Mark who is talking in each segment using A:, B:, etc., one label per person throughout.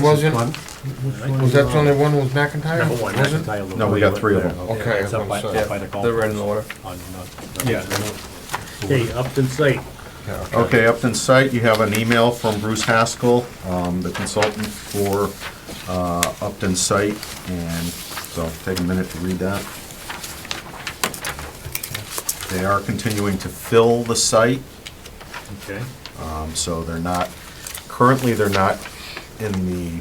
A: wasn't, was that the only one who was McIntyre?
B: Number one,
A: Was it?
B: McIntyre. Lou
C: No, we
B: Ray
C: got
B: went
C: three of
B: there.
C: them.
B: Okay,
A: Okay,
B: it's
A: I
B: up by,
A: was gonna
B: up by the golf.
D: They're right in
B: course.
D: the
B: On,
D: water.
B: uh,
C: Yeah.
B: Okay, Upton site.
C: Okay, Upton site, you have an email from Bruce Haskell, um, the consultant for uh, Upton site, and so take a minute to read that. They are continuing to fill the site,
B: Okay.
C: um, so they're not, currently, they're not in the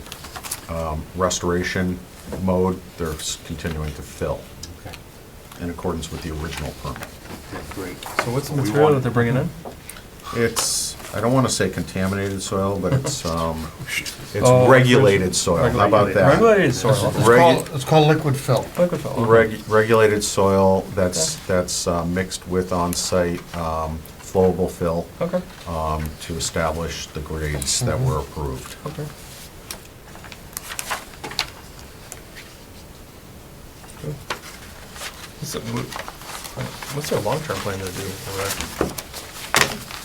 C: um, restoration mode, they're s- continuing to fill
B: Okay.
C: in accordance with the original permit.
B: Yeah, Great.
D: So what's the
B: We
D: material
B: want-
D: that they're bringing in?
C: It's, I don't want to say contaminated soil, but it's, um, it's
D: Oh,
C: regulated soil, how about that?
D: Regulated soil.
C: It's regu-
A: It's called- It's called liquid fill.
D: Liquid soil.
C: reg- Regulated soil that's, that's uh, mixed with on-site um, flowable fill
D: Okay,
C: um, to establish the grades that were
D: Mm-hmm.
C: approved.
D: okay. Good. What's the- What's their long-term plan to do? over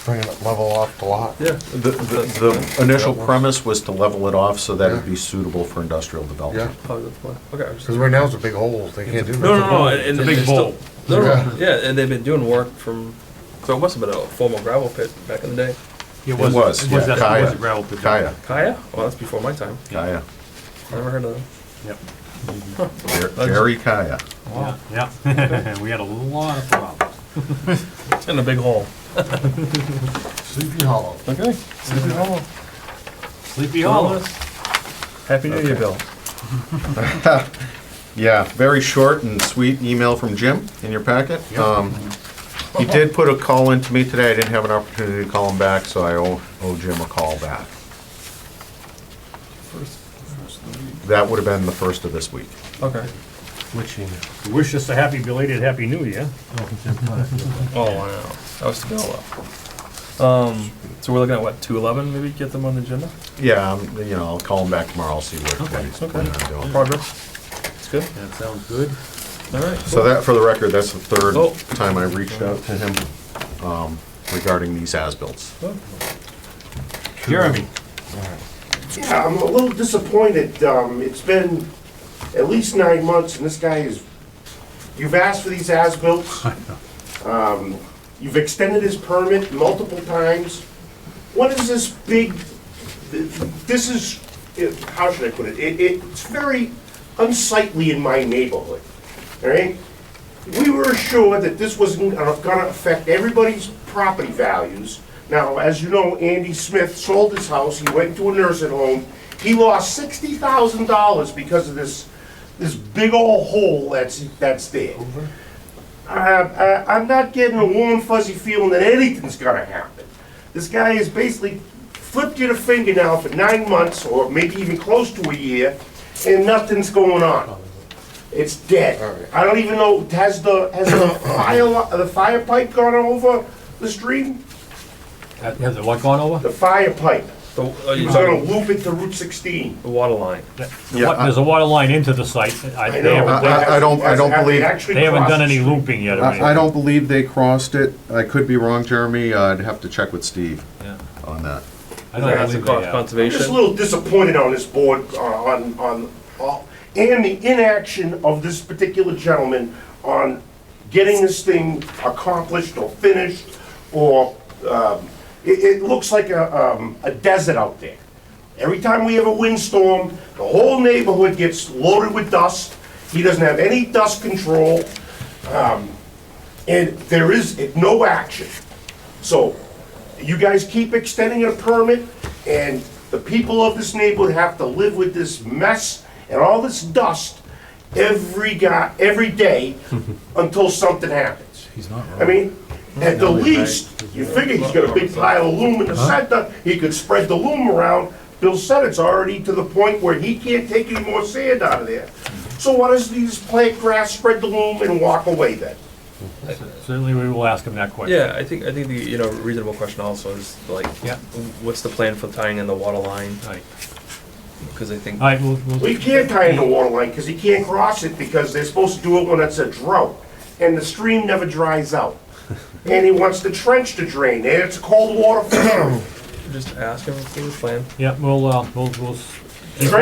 A: Bringing it level off the lot.
D: there? Yeah.
C: The, the the initial premise was to level it off so that it'd be suitable for industrial
A: Yeah,
C: development.
D: Probably the plan. Okay. I was just-
A: because right now it's a big hole, they can't do
D: No,
A: nothing.
D: no, no. and- and
B: It's a
D: they
B: big
D: still-
B: bowl.
D: No, no,
A: Yeah.
D: yeah, and they've been doing work from, so it must have been a formal gravel pit back in the day.
B: It
C: was- was,
B: It was
C: yeah,
B: that, it was
C: Kaya.
B: a gravel pit.
C: Kaya,
D: Kaya? Well, that's before my time.
C: Kaya,
D: I never heard of them.
B: Yep.
C: Jer- Jerry Kaya.
B: Yeah, yeah. we had a lot of problems.
D: It's in a big hole.
A: Sleepy Hollow.
D: Okay.
A: Sleepy Hollow.
B: Sleepy Hollow.
D: Happy New Year, Bill.
C: Yeah, very short and sweet email from Jim in your packet.
B: Yep.
C: Um, He did put a call in to me today, I didn't have an opportunity to call him back, so I owe owe Jim a call back. That would have been the first of this week.
D: Okay.
B: Wish us a happy belated Happy New Year.
D: Oh, wow. That was still up. Um, so we're looking at what, two eleven, maybe get them on the agenda?
C: Yeah, um, you know, I'll call him back tomorrow, I'll see what what
B: Okay,
C: he's planning on doing.
D: Progress? It's good?
B: That sounds good.
D: Alright.
C: So that, for the record, that's the third
D: Oh.
C: time I reached out to him um, regarding these as-bills.
B: Oh. Jeremy.
E: Yeah, I'm a little disappointed. Um, it's been at least nine months and this guy is, you've asked for these as-built. Um, you've extended his permit multiple times. What is this big, this is, how should I put it? It, it's very unsightly in my neighborhood, all right? We were assured that this wasn't gonna affect everybody's property values. Now, as you know, Andy Smith sold his house, he went to a nursing home. He lost sixty thousand dollars because of this, this big old hole that's, that's there. I, I, I'm not getting a warm fuzzy feeling that anything's gonna happen. This guy has basically flipped you the finger now for nine months, or maybe even close to a year, and nothing's going on. It's dead. I don't even know, has the, has the fire, li- the fire pipe gone over the stream?
B: Uh, Has it what gone over?
E: The fire pipe,
D: The, uh, you
E: it's gonna loop it to Route sixteen.
D: the water line.
C: Yeah, I-
B: There's a water line into the site. I-
E: I
B: They
E: know.
B: haven't done,
C: I- Uh, I don't- I don't
E: Have they
C: believe-
E: actually
B: they haven't done
E: crossed
B: any
E: the
B: looping yet or anything.
C: I I don't believe they crossed it, I could be wrong, Jeremy, Uh, I'd have to check with Steve
D: Yeah.
C: on that.
B: I don't believe
D: That's a
B: they
D: cost
B: have.
E: I'm just a
D: conservation.
E: little disappointed on this board, uh, on, on, on- and the inaction of this particular gentleman on getting this thing accomplished or finished, or, um, it, it looks like a, um, a desert out there. Every time we have a windstorm, the whole neighborhood gets loaded with dust. He doesn't have any dust control, um, and there is no action. So you guys keep extending a permit, and the people of this neighborhood have to live with this mess and all this dust every guy, every day until something happens. He's not wrong. I mean, at the least, you figure he's got a big pile of loom in the center, he could spread the loom around. Bill said it's already to the point where he can't take any more sand out of there. So why doesn't he just plant grass, spread the loom, and walk away then?
B: Certainly, we will ask him that question.
D: Yeah, I think, I think the, you know, reasonable question also is like,
B: Yeah.
D: what's the plan for tying in the water line?
B: All right.
D: Cause I think,
B: All right, we'll, we'll,
E: We can't tie in the water line because he can't cross it because they're supposed to do it when it's a drought. And the stream never dries out. And he wants the trench to drain and it's cold water for him.
D: just ask him for his plan.
B: yeah, we'll, uh, we'll, we'll s-